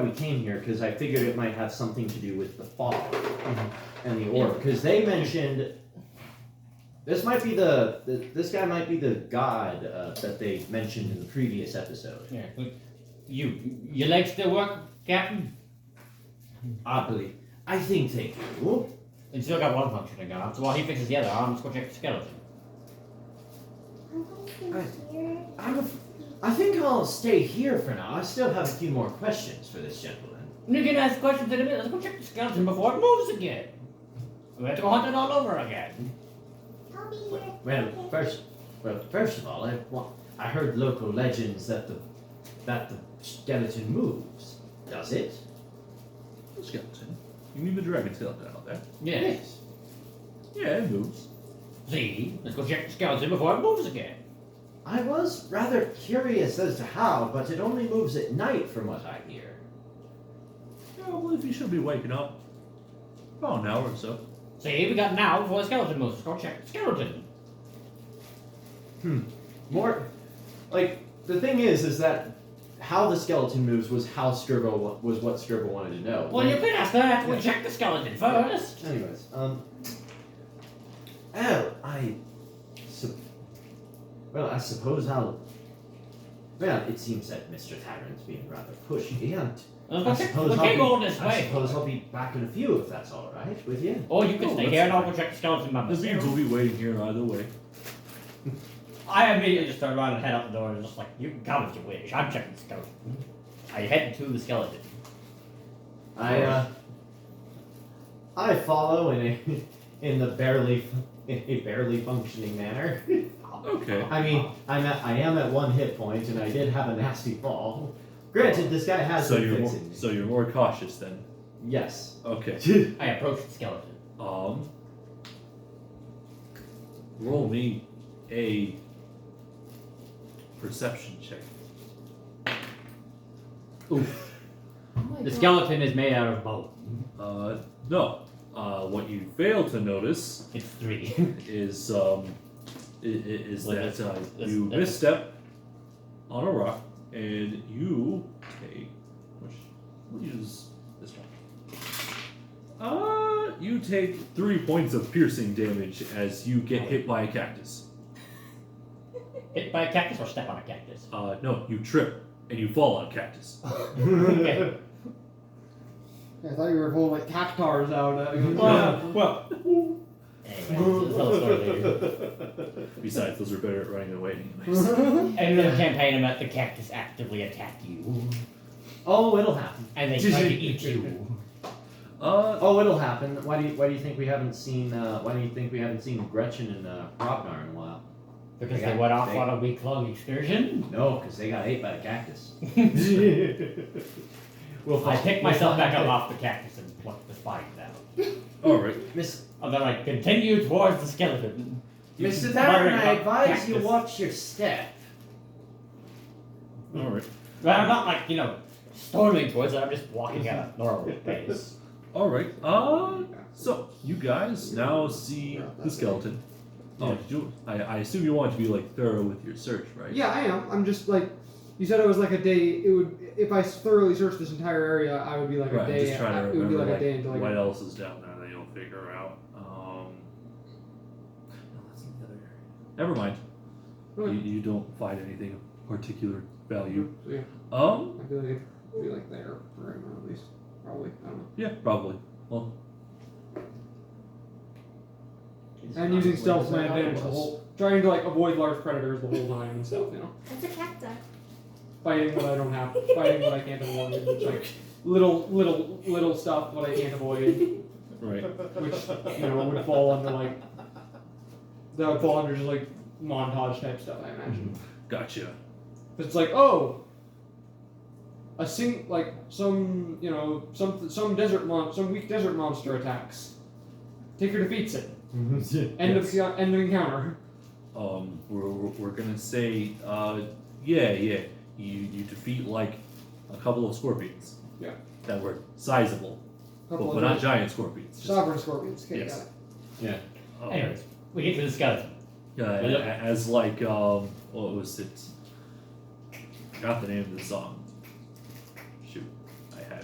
we came here because I figured it might have something to do with the fog and the orb. Because they mentioned this might be the, the this guy might be the god uh, that they mentioned in the previous episode. Yeah, but you, your legs still work, Captain? Oddly, I think they do. It's still got one function to go on, so while he fixes the other, I'm just gonna check the skeleton. I'm a, I think I'll stay here for now. I still have a few more questions for this gentleman. You can ask questions in a minute. Let's go check the skeleton before it moves again. We have to go hunt it all over again. Well, first, well, first of all, I, well, I heard local legends that the that the skeleton moves. Does it? Skeleton. You mean the dragon skeleton out there? Yes. Yeah, it moves. See? Let's go check the skeleton before it moves again. I was rather curious as to how, but it only moves at night from what I hear. Yeah, well, if you should be waking up, about an hour or so. See, we got an hour before the skeleton moves. Let's go check the skeleton. More, like the thing is, is that how the skeleton moves was how Skirbo wa- was what Skirbo wanted to know. Well, you can ask that. We'll Yeah. check the skeleton first. Anyways, um, oh, I, sup- well, I suppose I'll. Well, it seems that Mr. Tarrant's being rather pushy, and Let's I go check. suppose We I'll can't be, go this I way. suppose I'll be back in a few if that's all right with you. Or you can Oh, stay that's here and I'll go fine. check the skeleton by The beans will myself. be waiting here either way. I immediately just turn around and head out the door and just like, you can come if you wish. I'm checking the skeleton. I head to the skeleton. I uh, I follow in a in the barely in a barely functioning manner. Okay. I mean, I'm at, I am at one hit point, and I did have a nasty fall. Granted, this guy has So been you're more, fixing me. so you're more cautious then. yes. Okay. I approach the skeleton. Um. Roll me a perception check. The skeleton is made out of bone. Uh, no. Uh, what you fail to notice It's three. is um, i- i- is Well, that uh, that's- that's- you that's- misstep on a rock and you take which we'll use this one. Uh, you take three points of piercing damage as you get hit by a cactus. Hit by a cactus or step on a cactus? Uh, no, you trip and you fall on a cactus. Okay. I thought you were pulling like cactars out. uh, Well, Anyway, it's a little story later. Besides, those are better at running away anyways. And another campaign about the cactus actively attack you. oh, it'll happen. And they try to eat you. Uh, Oh, it'll happen. Why do you Why do you think we haven't seen uh, Why do you think we haven't seen Gretchen and uh, Ragnar in a while? Because they went off on a week long excursion. No, because they got ate by the cactus. well, I picked myself back up off the cactus and plucked the spines out. alright. Miss, And then I continue towards the skeleton. You Mr. keep Darren, muttering I about advise you cactus. watch your step. Alright. But I'm not like, you know, storming towards it, I'm just walking at a normal pace. Alright. Uh, so, you guys now see the skeleton. Oh, did you, I, I assume you want to be like thorough with your search, right? Yeah, I am. I'm just like, you said it was like a day. It would if I thoroughly searched this entire area, I would be like Right, a day. just trying to it would remember be like, like, a day until what like. else is down there that you'll figure out. Um, no, that's the other area. Never mind. Okay. You, you don't find anything of particular value. So, yeah, Um, I feel like it would be like there for right now at least. Probably. I don't know. yeah, probably. Well, And using stealth What to my is that? advantage the whole, trying to like avoid large predators the whole time and stuff. You know, That's a cacti. fighting what I don't have, fighting what I can't avoid, which, like little little little stuff what I can't avoid, right. which you know would fall under like that would fall under just like montage type stuff. I imagine. Gotcha. It's like, oh, a sing like some you know some some desert mon- some weak desert monster attacks. Taker defeats it. End Yes. of end of encounter. Um, we're, we're, we're gonna say, uh, yeah, yeah. You you defeat like a couple of scorpions. Yeah. That were sizable, but, Couple but of not those- giant scorpions. just, sovereign scorpions. Okay, Yes. got it. um, Anyways, we get to the skeleton. Yeah, a- a- as like um, what was it? I forgot the name of the song.